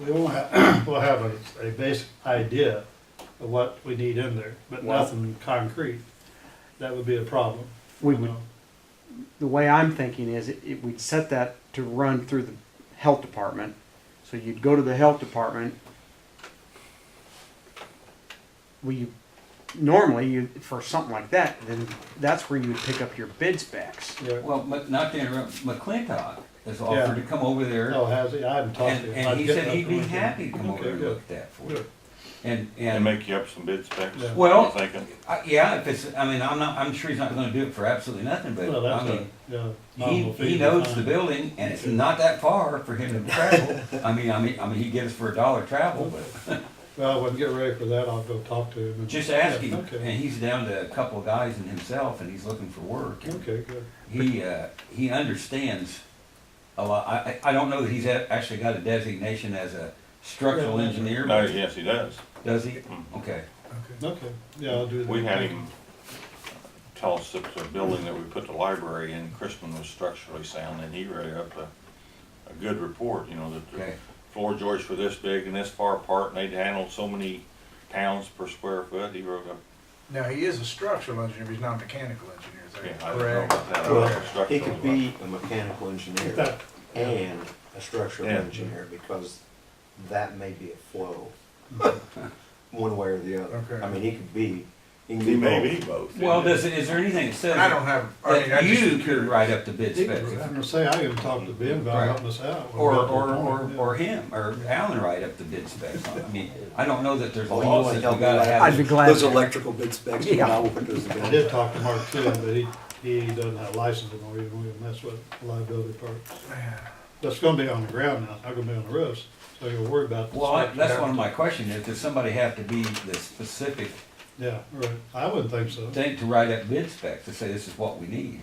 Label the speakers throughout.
Speaker 1: we won't have, we'll have a, a basic idea of what we need in there, but
Speaker 2: Well-
Speaker 1: nothing concrete. That would be a problem.
Speaker 3: We
Speaker 1: you
Speaker 3: would,
Speaker 1: know.
Speaker 3: the way I'm thinking is, it, it- we'd set that to run through the health department. So you'd go to the health department. We, normally, you, for something like that, then that's where you would pick up your bid specs.
Speaker 1: Yeah.
Speaker 4: Well, but not to interrupt, McClintock has
Speaker 1: Yeah.
Speaker 4: offered to come over there,
Speaker 1: Oh, has he? I haven't talked
Speaker 4: and,
Speaker 1: to him.
Speaker 4: and
Speaker 1: I'd
Speaker 4: he
Speaker 1: get
Speaker 4: said
Speaker 1: that
Speaker 4: he'd be
Speaker 1: from him.
Speaker 4: happy to come over
Speaker 1: Okay,
Speaker 4: and
Speaker 1: good.
Speaker 4: look at that for you.
Speaker 1: Good.
Speaker 4: And,
Speaker 2: and
Speaker 4: and,
Speaker 2: make you up some bid specs.
Speaker 1: Yeah.
Speaker 2: I'm
Speaker 4: well,
Speaker 2: thinking,
Speaker 4: I- yeah, if it's, I mean, I'm not, I'm sure he's not gonna do it for absolutely nothing, but,
Speaker 1: Well,
Speaker 4: I
Speaker 1: that's a,
Speaker 4: mean,
Speaker 1: yeah.
Speaker 4: he,
Speaker 1: nominal fee to
Speaker 4: he knows
Speaker 1: find.
Speaker 4: the building, and it's not that far for him to travel. I mean, I mean, I mean, he gives for a dollar travel, but
Speaker 1: Well, when we get ready for that, I'll go talk to him. and-
Speaker 4: just ask
Speaker 1: Yeah,
Speaker 4: him, and
Speaker 1: Okay,
Speaker 4: he's down to a couple of guys and himself, and he's looking for work. and-
Speaker 1: okay, good.
Speaker 4: he uh, he understands a lot. I, I I don't know that he's a- actually got a designation as a structural
Speaker 1: Yeah.
Speaker 4: engineer.
Speaker 2: no,
Speaker 4: but
Speaker 2: yes, he does.
Speaker 4: Does he?
Speaker 2: Mm.
Speaker 4: Okay.
Speaker 1: Okay, yeah, I'll do that.
Speaker 2: We had him tell us that the building that we put the library in, Chrisman was structurally sound, and he wrote up a, a good report, you know, that the
Speaker 4: Okay.
Speaker 2: floor joists were this big and this far apart, and they'd handled so many pounds per square foot, he wrote up.
Speaker 5: Now, he is a structural engineer, he's not a mechanical engineer, is
Speaker 2: yeah,
Speaker 5: that
Speaker 2: I don't know
Speaker 5: correct?
Speaker 2: about that, I don't know
Speaker 6: Well,
Speaker 2: if structural
Speaker 6: he
Speaker 2: was
Speaker 6: could
Speaker 2: like-
Speaker 6: be a mechanical engineer
Speaker 1: That-
Speaker 6: and a structural
Speaker 2: Yeah.
Speaker 6: engineer because that may be a flow, one way or the other.
Speaker 5: Okay.
Speaker 6: I mean, he could be, he can
Speaker 2: He
Speaker 6: be
Speaker 2: may
Speaker 6: both.
Speaker 2: be both.
Speaker 4: Well,
Speaker 2: yeah.
Speaker 4: does it, is there anything that says
Speaker 5: I don't have, I mean, I
Speaker 4: that
Speaker 5: just.
Speaker 4: you could write up the bid
Speaker 1: I'm
Speaker 4: specs,
Speaker 1: gonna say, I can talk to Ben about
Speaker 4: Right.
Speaker 1: helping us out.
Speaker 4: or
Speaker 1: We'll get to
Speaker 4: or,
Speaker 1: the
Speaker 4: or,
Speaker 1: point,
Speaker 4: or him or Alan write up the bid specs? I mean, I don't know that there's
Speaker 6: Oh, you
Speaker 4: laws
Speaker 6: wanna
Speaker 4: that
Speaker 6: help
Speaker 4: we
Speaker 6: me
Speaker 4: gotta
Speaker 6: write-
Speaker 4: have.
Speaker 3: I'd be glad.
Speaker 6: Those electrical bid specs, but
Speaker 3: Yeah.
Speaker 6: I wouldn't do
Speaker 1: yeah.
Speaker 6: the
Speaker 1: I did talk to Mark too, but he, he doesn't have a license anymore, he won't even mess with the liability part. That's gonna be on the ground now, it's not gonna be on the roofs, so you're worried about. the
Speaker 4: Well, I-
Speaker 1: structure.
Speaker 4: that's one of my questions. If does somebody have to be the specific
Speaker 1: Yeah, right, I wouldn't think so.
Speaker 4: thing to write up bid specs to say this is what we need?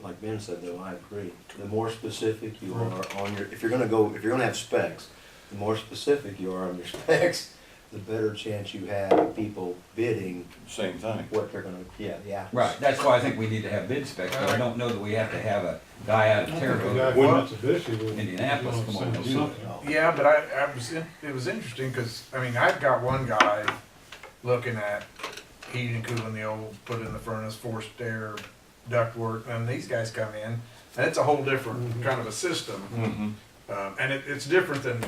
Speaker 6: Like Ben said, though, I agree. The more specific you are on your, if you're gonna go, if you're gonna have specs, the more specific you are on your specs, the better chance you have of people bidding
Speaker 2: Same thing.
Speaker 6: what they're gonna, yeah, yeah.
Speaker 4: Right, that's why I think we need to have bid specs, but I don't know that we have to have a guy out
Speaker 1: I
Speaker 4: of
Speaker 1: think
Speaker 4: Terre
Speaker 1: the guy
Speaker 4: Haute.
Speaker 1: from Mitsubishi would-
Speaker 4: Indianapolis,
Speaker 1: would
Speaker 4: come on,
Speaker 1: send us
Speaker 4: do that.
Speaker 1: something.
Speaker 5: Yeah, but I, I was, in- it was interesting, cause, I mean, I've got one guy looking at heating and cooling the old, put in the furnace, forced air, ductwork, and these guys come in, and it's a whole different kind of a system.
Speaker 2: Mm-hmm.
Speaker 5: Um, and it, it's different than,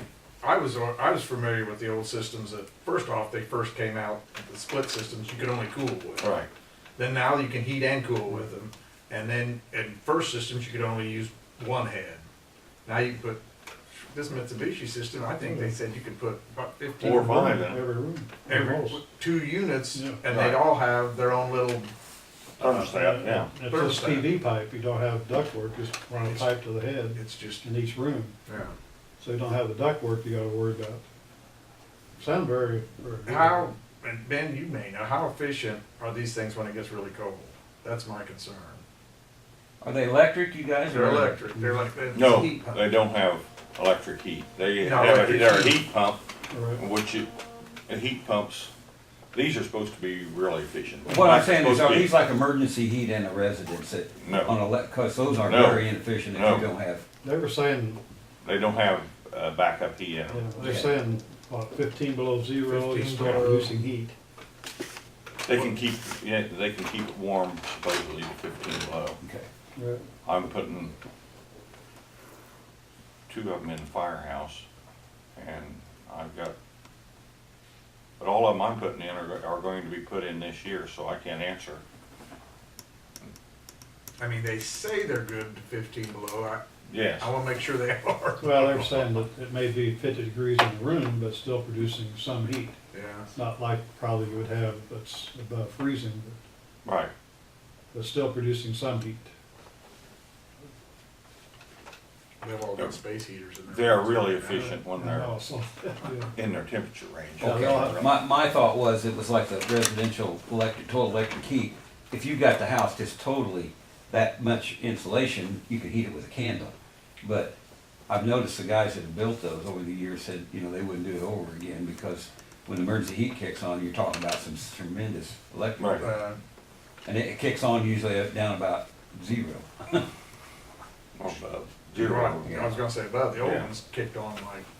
Speaker 5: I was, I was familiar with the old systems that, first off, they first came out, the split systems, you could only cool with.
Speaker 2: Right.
Speaker 5: Then now you can heat and cool with them. And then in first systems, you could only use one head. Now you put, this Mitsubishi system, I think they said you could put about fifteen.
Speaker 2: Four or five.
Speaker 1: Every room.
Speaker 5: Every, two units,
Speaker 1: Yeah.
Speaker 5: and they'd all have their own little,
Speaker 2: Thermostat, yeah.
Speaker 1: It's just PV pipe, you don't have ductwork, just run a pipe to the head
Speaker 5: it's just,
Speaker 1: in each room,
Speaker 5: yeah.
Speaker 1: so you don't have the ductwork you gotta worry about. Sound very, very. good.
Speaker 5: How, and Ben, you may know, how efficient are these things when it gets really cold? That's my concern.
Speaker 4: Are they electric, you guys?
Speaker 5: They're
Speaker 4: or-
Speaker 5: electric, they're like, it's
Speaker 2: No,
Speaker 5: heat pump.
Speaker 2: they don't have electric heat. They
Speaker 5: No,
Speaker 2: have a,
Speaker 5: electric
Speaker 2: they're a
Speaker 5: heat.
Speaker 2: heat pump,
Speaker 1: All right.
Speaker 2: which it, and heat pumps, these are supposed to be really efficient.
Speaker 4: What I'm
Speaker 2: They're
Speaker 4: saying is,
Speaker 2: supposed
Speaker 4: are
Speaker 2: to be-
Speaker 4: these like emergency heat in a residence that,
Speaker 2: No.
Speaker 4: on elec, cause those are
Speaker 2: No.
Speaker 4: very inefficient if
Speaker 2: No.
Speaker 4: you don't have.
Speaker 1: They were saying,
Speaker 2: They don't have uh, backup heat in
Speaker 1: yeah,
Speaker 2: them.
Speaker 1: they're saying, what, fifteen below zero, you
Speaker 5: 15
Speaker 1: start
Speaker 5: below.
Speaker 1: losing heat.
Speaker 2: They can keep, yeah, they can keep it warm supposedly to fifteen below.
Speaker 4: Okay.
Speaker 1: Right.
Speaker 2: I'm putting two of them in the firehouse, and I've got, but all of them I'm putting in are, are going to be put in this year, so I can't answer.
Speaker 5: I mean, they say they're good to fifteen below, I,
Speaker 2: Yes,
Speaker 5: I wanna make sure they are.
Speaker 1: Well, they were saying that it may be fifty degrees in the room, but still producing some heat,
Speaker 5: Yeah.
Speaker 1: not like probably you would have that's above freezing, but
Speaker 2: right.
Speaker 1: but still producing some heat.
Speaker 5: They've all got space heaters in there.
Speaker 2: They're really efficient when
Speaker 1: And
Speaker 2: they're
Speaker 1: also, Oh, yeah.
Speaker 2: in their temperature range.
Speaker 1: Yeah, they'll have-
Speaker 4: Okay, my, my thought was it was like the residential electric, total electric heat. If you got the house just totally that much insulation, you could heat it with a candle. But I've noticed the guys that have built those over the years said, you know, they wouldn't do it over again because when emergency heat kicks on, you're talking about some tremendous electric.
Speaker 2: Right.
Speaker 5: Uh,
Speaker 4: And it it kicks on usually up down about zero.
Speaker 2: Or above.
Speaker 5: You're
Speaker 2: Zero.
Speaker 5: right, I was gonna say, about the old
Speaker 2: uh, Yeah.
Speaker 5: ones kicked on like